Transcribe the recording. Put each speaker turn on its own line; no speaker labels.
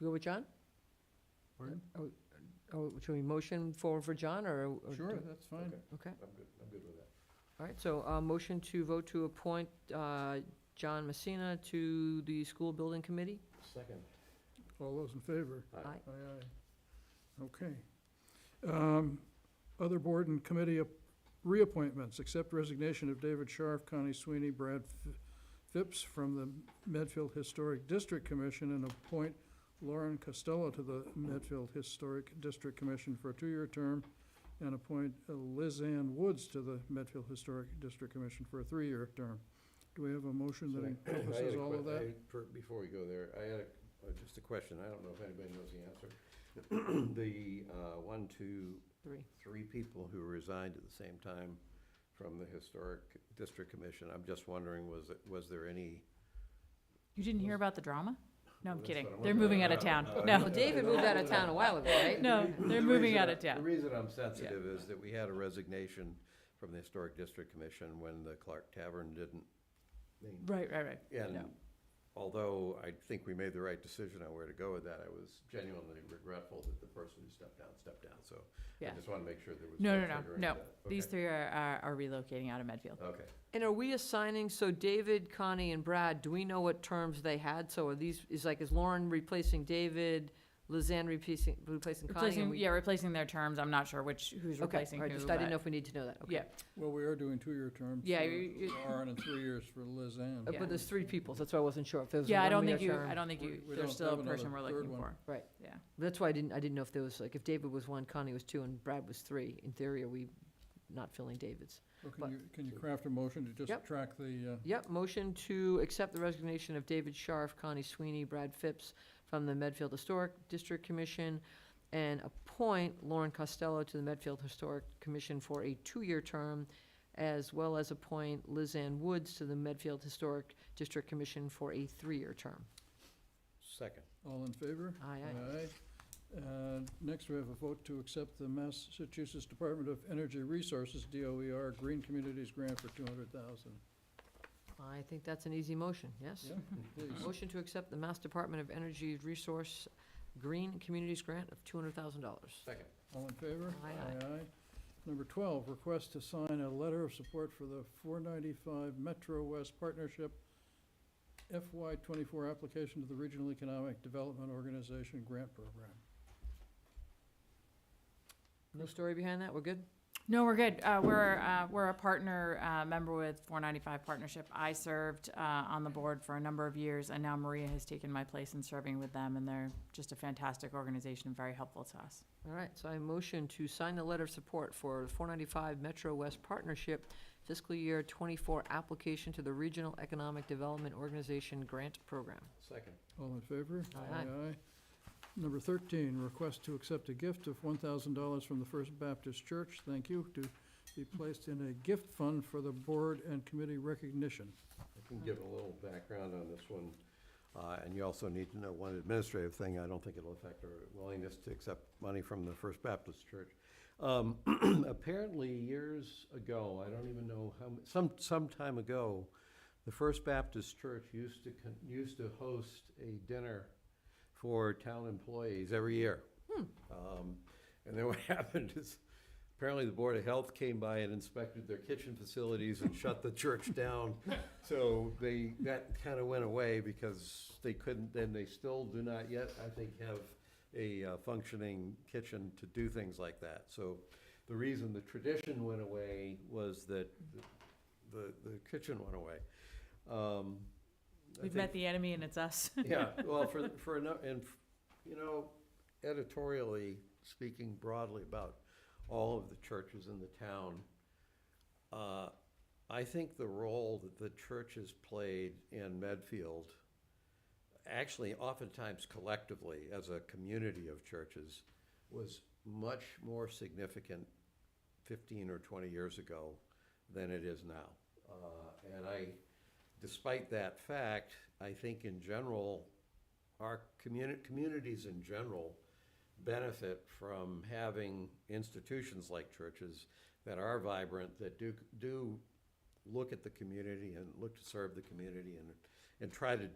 You go with John?
Pardon?
Oh, should we motion forward for John, or? or
Sure,
do-
that's fine.
Okay,
I'm good, I'm good with that.
all right, so, uh, motion to vote to appoint, uh, John Messina to the school building committee?
Second.
All those in favor?
Aye.
Aye.
Aye, aye. Okay. Um, Other board and committee ap- reappointments, accept resignation of David Scharf, Connie Sweeney, Brad F- Phipps from the Medfield Historic District Commission, and appoint Lauren Costello to the Medfield Historic District Commission for a two-year term, and appoint uh, Liz Ann Woods to the Medfield Historic District Commission for a three-year term. Do we have a motion that
So I- I had
encompasses
a
all of
que-
that?
I- per- Before we go there, I had a- uh, just a question, I don't know if anybody knows the answer. The uh, one, two,
Three.
three people who resigned at the same time from the Historic District Commission, I'm just wondering, was, it- was there any?
You didn't hear about the drama? No, I'm
That's
kidding.
what I
They're
wondered.
moving out of town.
Uh,
No.
Well, David moved out of town a while ago, right?
No, they're
The
moving
reason
out
I-
of town.
The reason I'm sensitive is that we had a resignation from the Historic District Commission when the Clark Tavern didn't.
Right, right, right.
And
No.
although I think we made the right decision on where to go with that, I was genuinely regretful that the person who stepped down, stepped down, so I
Yeah.
just want to make sure there was.
No, no,
triggering
no, no.
that.
These
Okay.
three are, are are relocating out of Medfield.
Okay,
And are we assigning, so David, Connie, and Brad, do we know what terms they had? So are these, is like, is Lauren replacing David, Lizanne replacing, replacing Connie? and
Replacing,
we-
yeah, replacing their terms. I'm not sure which, who's
Okay,
replacing
all right,
who,
just I didn't know
but-
if we need to know that, okay.
Yeah,
Well, we are doing two-year terms.
Yeah,
for
you- you-
Lauren and three years for Liz Ann.
Uh, But there's three people, so that's why I wasn't sure if there was a
yeah, I don't
one-year
think you,
term.
I don't think
We-
you,
we don't
there's still
have
a person
another
we're
third
looking
one.
for.
Right.
Yeah.
That's why I didn't, I didn't know if there was, like, if David was one, Connie was two, and Brad was three. In theory, are we not filling David's?
Or
but-
Can you, can you craft a motion to just
Yep.
track the, uh,
Yep, motion to accept the resignation of David Scharf, Connie Sweeney, Brad Phipps from the Medfield Historic District Commission, and appoint Lauren Costello to the Medfield Historic Commission for a two-year term, as well as appoint Liz Ann Woods to the Medfield Historic District Commission for a three-year term.
second.
uh, all in favor?
Aye, aye.
Aye. Uh, Next, we have a vote to accept the Massachusetts Department of Energy Resources, DOER, Green Communities Grant for two hundred thousand.
I think that's an easy motion, yes?
Yeah,
Mhm.
please.
Motion to accept the Mass Department of Energy Resource Green Communities Grant of two hundred thousand dollars.
Second.
All in favor?
Aye, aye.
aye. Number twelve, request to sign a letter of support for the four ninety-five Metro West Partnership FY twenty-four application to the Regional Economic Development Organization Grant Program.
No story behind that, we're good?
No, we're good. Uh, we're, uh, we're a partner, uh, member with 495 Partnership. I served, uh, on the board for a number of years and now Maria has taken my place in serving with them and they're just a fantastic organization and very helpful to us.
All right, so I motion to sign the letter of support for the 495 Metro West Partnership fiscal year 24 application to the Regional Economic Development Organization Grant Program.
Second.
All in favor?
Aye.
Number 13, request to accept a gift of $1,000 from the First Baptist Church, thank you, to be placed in a gift fund for the board and committee recognition.
I can give a little background on this one, uh, and you also need to know one administrative thing. I don't think it'll affect our willingness to accept money from the First Baptist Church. Um, Apparently, years ago, I don't even know how, m- some, some time ago, the First Baptist Church used to, con- used to host a dinner for town employees every year.
Hmm.
Um, And then what happened is, apparently the Board of Health came by and inspected their kitchen facilities and shut the church down. So they, that kind of went away because they couldn't, and they still do not yet, I think, have a uh, functioning kitchen to do things like that. So the reason the tradition went away was that the, the kitchen went away. Um, I
We've
think-
met the enemy and it's us.
yeah, well, for, for, ano- and, you know, editorially, speaking broadly about all of the churches in the town, uh, I think the role that the church has played in Medfield, actually oftentimes collectively as a community of churches, was much more significant fifteen or twenty years ago than it is now. Uh, and I, despite that fact, I think in general, our communi- communities in general benefit from having institutions like churches that are vibrant, that do, do look at the community and look to serve the community and, and try to